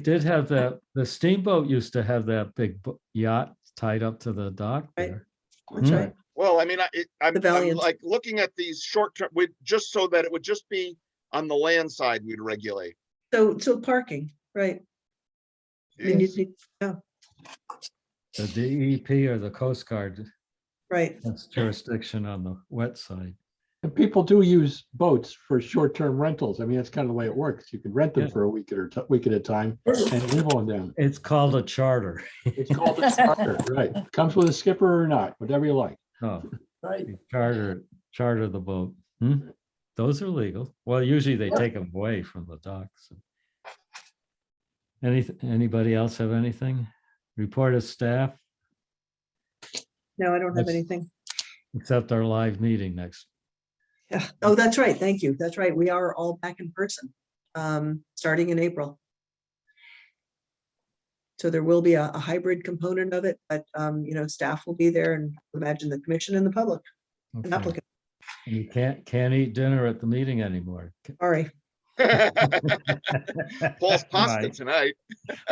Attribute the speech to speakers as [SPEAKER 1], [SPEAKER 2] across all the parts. [SPEAKER 1] did have that, the steamboat used to have that big bo- yacht tied up to the dock
[SPEAKER 2] Right.
[SPEAKER 1] there.
[SPEAKER 2] That's
[SPEAKER 1] Hmm.
[SPEAKER 2] right.
[SPEAKER 3] Well, I mean, I, it- I'm,
[SPEAKER 2] The
[SPEAKER 3] I'm
[SPEAKER 2] Valiant.
[SPEAKER 3] like looking at these short term, we, just so that it would just be on the land side we'd regulate.
[SPEAKER 2] So, so parking, right? I mean, you'd need- yeah,
[SPEAKER 1] The DEP or the Coast Guard
[SPEAKER 2] right.
[SPEAKER 1] has jurisdiction on the wet side.
[SPEAKER 4] And people do use boats for short-term rentals. I mean, that's kind of the way it works. You could rent them
[SPEAKER 1] Yeah.
[SPEAKER 4] for a week at a, ti- week at a time and live on them.
[SPEAKER 1] It's called a charter.
[SPEAKER 4] It's called a charter, Right. Comes with a skipper or not, whatever you like.
[SPEAKER 1] Oh,
[SPEAKER 5] Right.
[SPEAKER 1] you charter, charter the boat. Hmm? Those are legal. Well, usually they take them away from the docks. Any, anybody else have anything? Report of staff,
[SPEAKER 2] No, I don't have
[SPEAKER 1] That's-
[SPEAKER 2] anything.
[SPEAKER 1] except our live meeting next.
[SPEAKER 2] Yeah. Oh, that's right. Thank you. That's right. We are all back in person, um, starting in April. So there will be a, a hybrid component of it, but, um, you know, staff will be there and imagine the commission and the public and
[SPEAKER 1] Okay.
[SPEAKER 2] applicant.
[SPEAKER 1] And You can't, can't eat dinner at the meeting anymore.
[SPEAKER 2] Sorry.
[SPEAKER 3] Paul's pasta
[SPEAKER 1] Right.
[SPEAKER 3] tonight,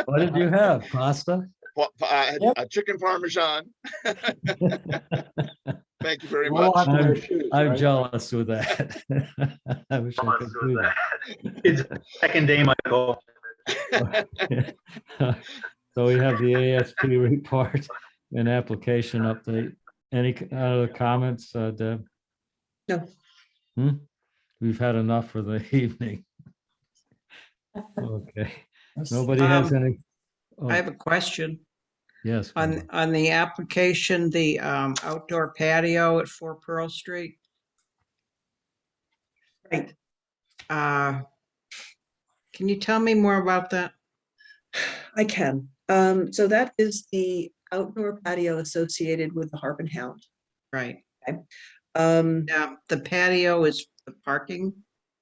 [SPEAKER 1] What did you have? Pasta?
[SPEAKER 3] Pa- pa- I had
[SPEAKER 5] Yep.
[SPEAKER 3] a chicken parmesan. Thank you very
[SPEAKER 4] We'll all
[SPEAKER 3] much.
[SPEAKER 4] have to wear
[SPEAKER 1] I'm-
[SPEAKER 4] shoes,
[SPEAKER 1] I'm
[SPEAKER 4] right?
[SPEAKER 1] jealous with that. I wish I could do that.
[SPEAKER 6] It's second day, Michael.
[SPEAKER 1] So we have the ASP report and application update. Any c- other comments, uh, Deb?
[SPEAKER 2] No.
[SPEAKER 1] Hmm? We've had enough for the evening. Okay, nobody has
[SPEAKER 7] Um,
[SPEAKER 1] any?
[SPEAKER 7] I
[SPEAKER 1] Oh,
[SPEAKER 7] have a question
[SPEAKER 1] Yes.
[SPEAKER 7] on,
[SPEAKER 1] Gwendolyn.
[SPEAKER 7] on the application, the um, outdoor patio at Four Pearl Street.
[SPEAKER 2] Right.
[SPEAKER 7] Uh, Can you tell me more about that?
[SPEAKER 2] I can. Um, so that is the outdoor patio associated with the Harp and Hound.
[SPEAKER 7] Right,
[SPEAKER 2] Um,
[SPEAKER 7] now, the patio is the parking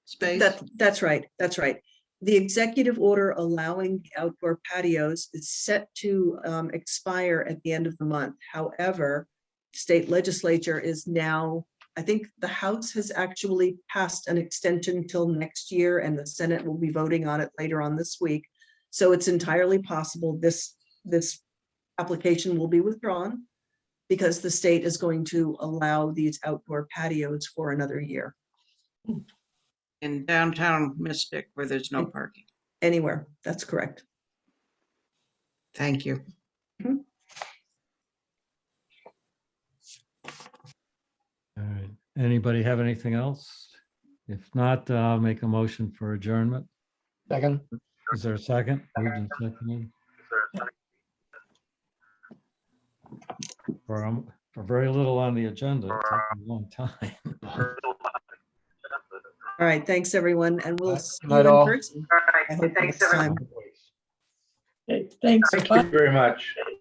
[SPEAKER 7] space?
[SPEAKER 2] That, that's right, that's right. The executive order allowing outdoor patios is set to um, expire at the end of the month. However, state legislature is now, I think the House has actually passed an extension till next year and the Senate will be voting on it later on this week. So it's entirely possible this, this application will be withdrawn because the state is going to allow these outdoor patios for another year,
[SPEAKER 7] In downtown Mystic where there's
[SPEAKER 2] Mm.
[SPEAKER 7] no parking?
[SPEAKER 2] anywhere. That's correct.
[SPEAKER 7] Thank you.
[SPEAKER 1] All right, anybody have anything else? If not, uh, I'll make a motion for adjournment.
[SPEAKER 4] Second.
[SPEAKER 1] Is there a second? Moved and seconded. For, um, for very little on the agenda, it took a long time.
[SPEAKER 2] All right, thanks, everyone, and we'll
[SPEAKER 4] Night-
[SPEAKER 2] see you
[SPEAKER 4] night
[SPEAKER 2] in
[SPEAKER 4] all.
[SPEAKER 2] person. All right, thanks, everyone.
[SPEAKER 5] Hey, thanks.
[SPEAKER 6] Thank you very much.